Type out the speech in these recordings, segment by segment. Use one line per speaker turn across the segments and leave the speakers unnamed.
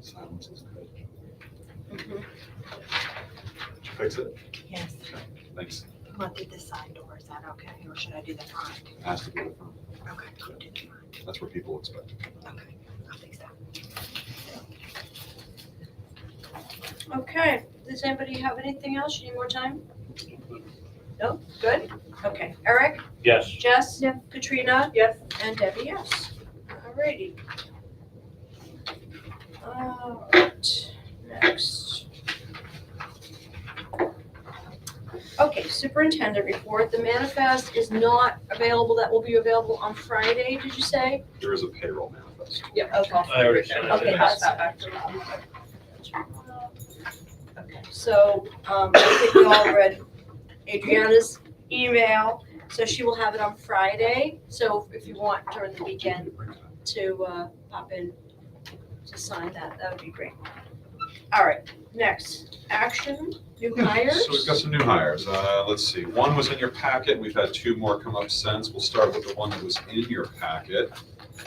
silence is good.
Mhm.
Did you fix it?
Yes,
Thanks.
look at the side door, is that okay, or should I do the front?
Has to be the front.
Okay, I'll do the front,
That's where people expect. it.
okay, I'll fix that.
Okay, does anybody have anything else? You need more time? No, good, okay. Eric,
Yes.
Jess, Katrina,
Yes.
and Debbie, yes. Alrighty. Alright, next. Okay, superintendent report, the manifest is not available, that will be available on Friday, did you say?
There is a payroll manifest.
Yeah. Okay.
I already sent it.
Okay, that's that back to Okay, so, um, I think we all read Adriana's email, so she will have it on Friday. So if you want during the weekend to, uh, pop in to sign that, that would be great. All right, next, action, new
Yeah, Hmm, So we've got
hires.
some new hires. Uh, Let's see, one was in your packet. We've had two more come up since. We'll start with the one that was in your packet.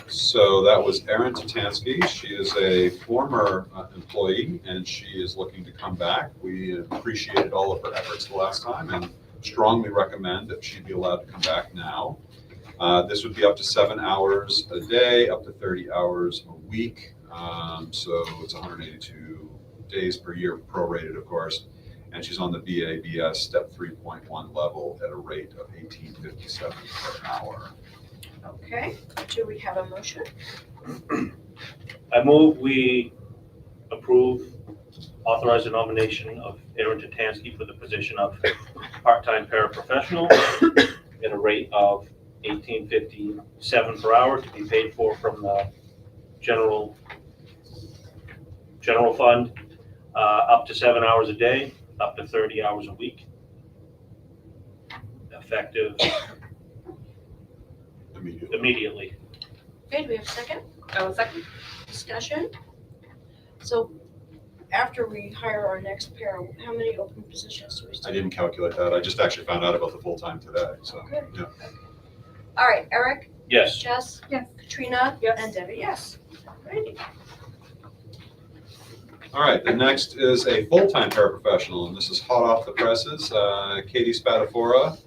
So that was Erin Tatansky. She is a former uh, employee and she is looking to come back. We appreciated all of her efforts the last time and strongly recommend that she be allowed to come back now. Uh, This would be up to seven hours a day, up to 30 hours a week. Um, So it's 182 days per year prorated, of course and she's on the BABS step three point one level at a rate of eighteen fifty-seven per hour.
Okay, do we have a motion?
I move we approve, authorize the nomination of Aaron Tatansky for the position of part-time paraprofessional at a rate of eighteen fifty-seven per hour to be paid for from the general, general fund, uh, up to seven hours a day, up to thirty hours a week. Effective
Immediately.
immediately.
Okay, do we have a second?
Oh, second.
discussion. So after we hire our next pair, how many open positions do we
I
still?
didn't calculate that. I just actually found out about the full-time today, so, yeah.
All right, Eric,
Yes.
Jess,
Yes.
Katrina,
Yes.
and Debbie, yes. Alrighty.
All right, the next is a full-time paraprofessional, and this is hot off the presses. Uh, Katie Spatafora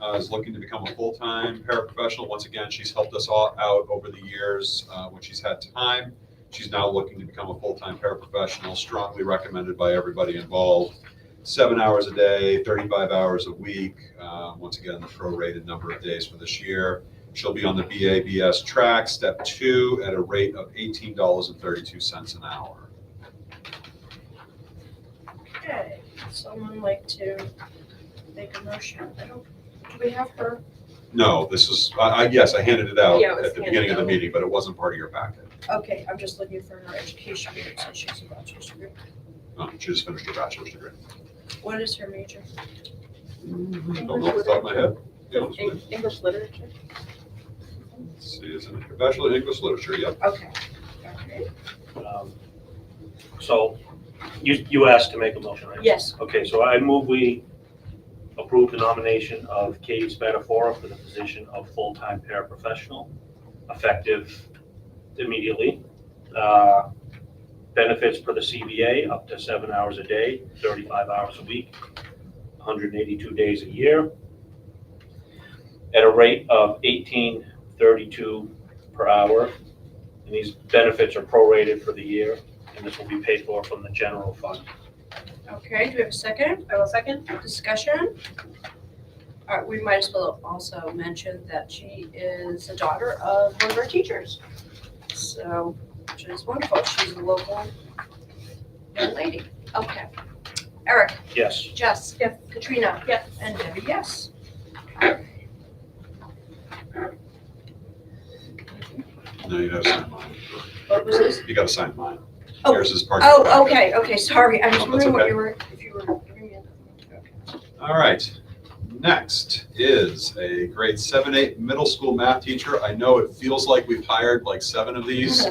uh, is looking to become a full-time paraprofessional. Once again, she's helped us all out over the years uh, when she's had time. She's now looking to become a full-time paraprofessional, strongly recommended by everybody involved. Seven hours a day, 35 hours a week. Uh, Once again, the prorated number of days for this year. She'll be on the BABS track, step two, at a rate of $18.32 an hour.
Okay, someone like to make a motion? I don't, do we have her?
No, this is, I, I, yes, I handed it out
Yeah, it was
at the beginning of the
handed out.
meeting, but it wasn't part of your packet.
Okay, I'm just looking for her education, degree, so she's a bachelor's degree.
Um, She just finished her bachelor's degree.
What is her major?
Don't know off the top of my head. Yeah, let's see.
English literature?
Let's See, is it her bachelor in English literature? Yep.
Okay. Okay.
Um, So you, you asked to make a motion, right?
Yes,
Okay, so I move we approve the nomination of Katie Spatafora for the position of full-time paraprofessional, effective immediately. Uh, Benefits per the CBA, up to seven hours a day, 35 hours a week, 182 days a year, at a rate of 18.32 per hour. And these benefits are prorated for the year, and this will be paid for from the general fund.
okay, do we have a second?
I will second.
Discussion? All right, we might as well also mention that she is the daughter of one of our teachers. So, which is wonderful, she's a local young lady. Okay. Eric,
Yes.
Jess.
Yes.
Katrina.
Yes.
And Debbie, yes.
No, you gotta sign mine.
What was this?
You gotta sign mine.
Oh.
Yours is part of your
Oh,
packet.
okay, okay, sorry, I
No,
was
that's
wondering what
okay.
you were, if you were giving me another one.
All right, next is a grade seven, eight middle school math teacher. I know it feels like we've hired like seven of these.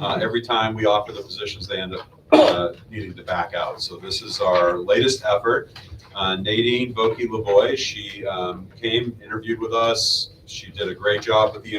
Uh, Every time we offer the positions, they end up uh, needing to back out. So this is our latest effort. Uh, Nadine Boki Lavoy, she um, came, interviewed with us. She did a great job with the